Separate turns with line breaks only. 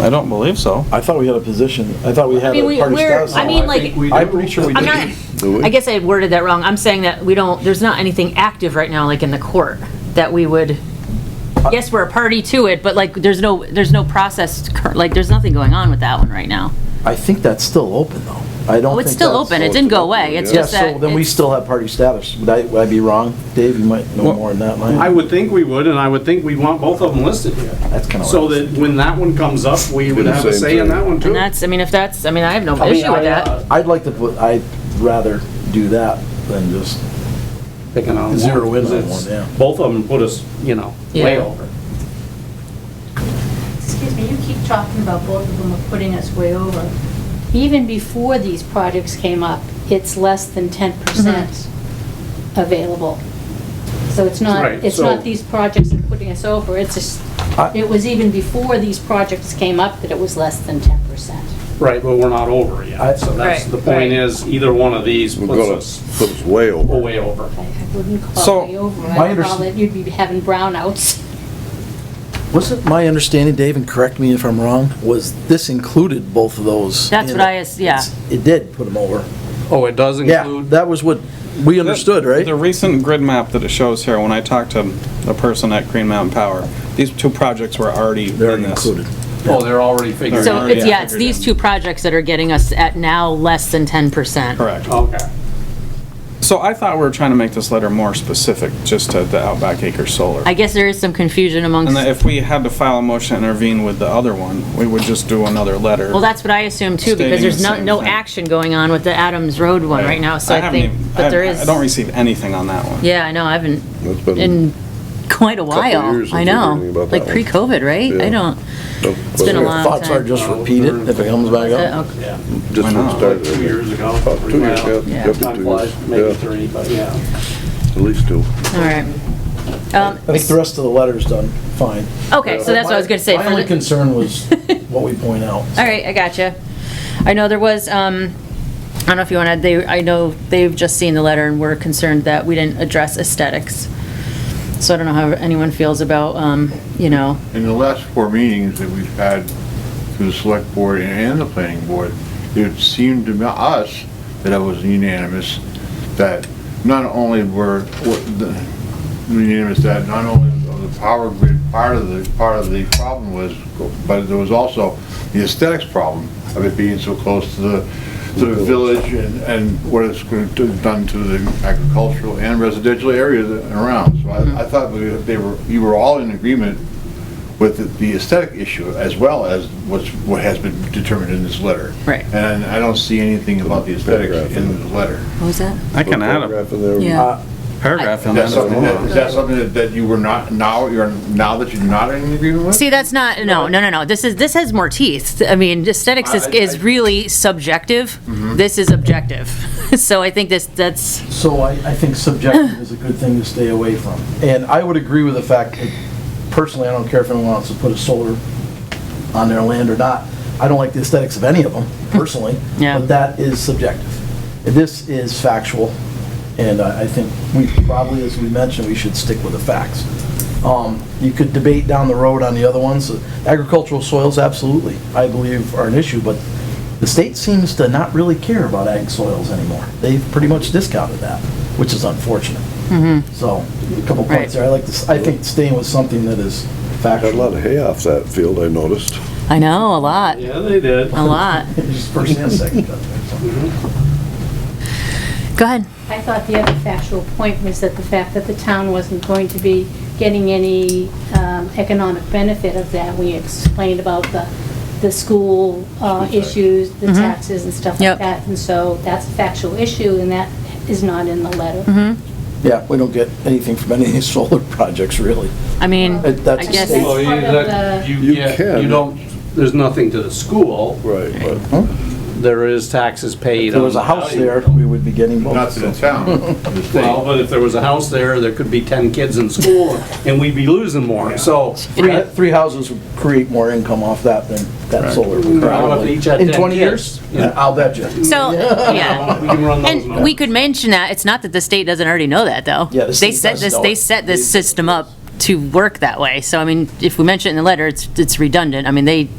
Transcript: I don't believe so.
I thought we had a position, I thought we
I
had
mean,
a
we-
part of
we're,
status.
I mean, like,
Oh, we
I'm pretty sure we
I'm
did.
not,
Do we?
I guess I worded that wrong. I'm saying that we don't, there's not anything active right now, like in the court, that we would, yes, we're a party to it, but like, there's no, there's no process, cur- like, there's nothing going on with that one right now.
I think that's still open, though. I don't
Oh,
think
it's still
that's-
open. It didn't go away. It's
Yeah,
just that.
so then we
it's-
still have party status. Would I, would I be wrong? Dave, you might know
Well,
more than that,
I
Mike.
would think we would, and I would think we'd want both of them listed here.
That's kind of.
So that when that one comes up, we would
the
have a
same
say in
thing.
that one too.
And that's, I mean, if that's, I mean, I have no
I mean,
issue with
I,
that.
uh, I'd like to put, I'd rather do that than just,
Picking on one.
Zero in on
It's-
one, yeah.
Both of them put us, you know, way
Yeah.
over.
Excuse me, you keep talking about both of them are putting us way over. Even before these projects came up, it's less than 10% Mm-hmm. available. So it's not,
Right,
it's
so-
not these projects are putting us over, it's just,
I-
it was even before these projects came up that it was less than 10%.
Right, but we're not over
I-
yet. So that's,
Right,
the point
right.
is, either one of these
We're
puts
gonna
us
put us way over.
way over.
I wouldn't
So,
call it way over,
my
I would call
underst-
it, you'd be having brownouts.
was it my understanding, Dave, and correct me if I'm wrong, was this included both of those?
That's
in
what I
it?
as- yeah.
It's- It did put them over.
Oh, it does
Yeah, that was what we understood,
The
right?
recent grid map that it shows here, when I talked to the person at Green Mountain Power, these two projects were already in
They're
this.
included.
Oh, they're already figured
So
already
it's, yeah, it's
figured
these
in.
two projects that are getting us at now less than 10%.
Correct.
Okay.
So I thought we were trying to make this letter more specific, just to the Outback Acres Solar.
I guess there is some confusion amongst,
And that if we had to file a motion to intervene with the other one, we would just do another letter.
well, that's what I assume too,
Stating
because there's
the
no,
same
no
thing.
action going on with the Adams Road one right now, so I
haven't
think,
even- I-
but there is.
I don't receive anything on that one.
Yeah, I know, I haven't,
That's been-
in quite a while,
years since
I
we've heard anything
know,
about
like
that one.
pre-COVID, right? I
Yeah.
don't,
Nope,
been a
wasn't it?
Your
long
Thoughts are
time.
just repeated if it comes back
uh,
up.
okay.
Yeah.
Just
Why
when
not?
it started.
Two years ago,
About
three
Two years,
miles.
yeah,
Yeah.
up to
Time
two
flies,
years.
maybe
Yeah,
three, but yeah.
at least two.
all right. Um,
I think the rest of the letter's done fine.
Okay, so that's what I was gonna say.
My
for
only
the-
concern was what we point out.
All right, I gotcha. I know there was, um, I don't know if you want to, they, I know they've just seen the letter and were concerned that we didn't address aesthetics. So I don't know how anyone feels about, um, you know,
In the last four meetings that we've had through the select board and the planning board, it seemed to us that it was unanimous, that not only were, were the- unanimous that not only was the power grid part of the, part of the problem was, but there was also the aesthetics problem of it being so close to the, to the village and, and what it's going to done to the agricultural and residential areas around. So I, I thought we- they were, you were all in agreement with the aesthetic issue as well as what's, what has been determined in this letter.
Right.
And I don't see anything about the aesthetics in the letter.
what was that?
I can add a
Photograph in there.
Yeah.
paragraph
Is
in
that
that.
something that, is that something that- that you were not, now, you're, now that you're not in agreement with?
See, that's not, no, no, no, no, this is, this has more teeth. I mean, aesthetics
Uh,
is,
I- I-
is really subjective.
Mm-hmm.
This is objective. So I think this, that's,
So I, I think subjective is a good thing to stay away from. And I would agree with the fact that personally, I don't care if anyone wants to put a solar on their land or not. I don't like the aesthetics of any of them personally.
Yeah.
But that is subjective. This is factual. And I, I think we probably, as we mentioned, we should stick with the facts. Um, you could debate down the road on the other ones. Agricultural soils, absolutely, I believe are an issue, but the state seems to not really care about ag soils anymore. They've pretty much discounted that, which is unfortunate. So, a couple
Mm-hmm. Right.
points there. I like this, I think staying with something that is
Had a
factual.
lot of hay off that field, I noticed.
I know, a lot,
Yeah, they did.
a lot.
Just first and second.
Go ahead.
I thought the other factual point was that the fact that the town wasn't going to be getting any um, economic benefit of that. We explained about the, the school uh, issues, the taxes and stuff
Yep.
like that. And so that's a factual issue and that is not in the letter.
Yeah, we don't get anything from any of these solar projects, really.
I mean,
Uh, that's
I guess,
a
Well,
That's
you,
part of
that-
the-
you
You
get,
can.
you don't, there's nothing to the school.
Right, but.
There is taxes paid.
If there was a
on
house
value.
there, we would be getting
Not
both.
to the town, the state.
Well, but if there was a house there, there could be 10 kids in school and we'd be losing more. So
Three, three houses would create more income off that than that solar would
I don't know if
probably.
each had
In
10
20
kids.
years? I'll bet you.
so, yeah.
we can run those
And
numbers.
we could mention that, it's not that the state doesn't already know that, though.
Yeah, the
They
state
set
does
this,
know
they
it.
set this system up to work that way, so I mean, if we mention it in the letter, it's, it's redundant, I mean, they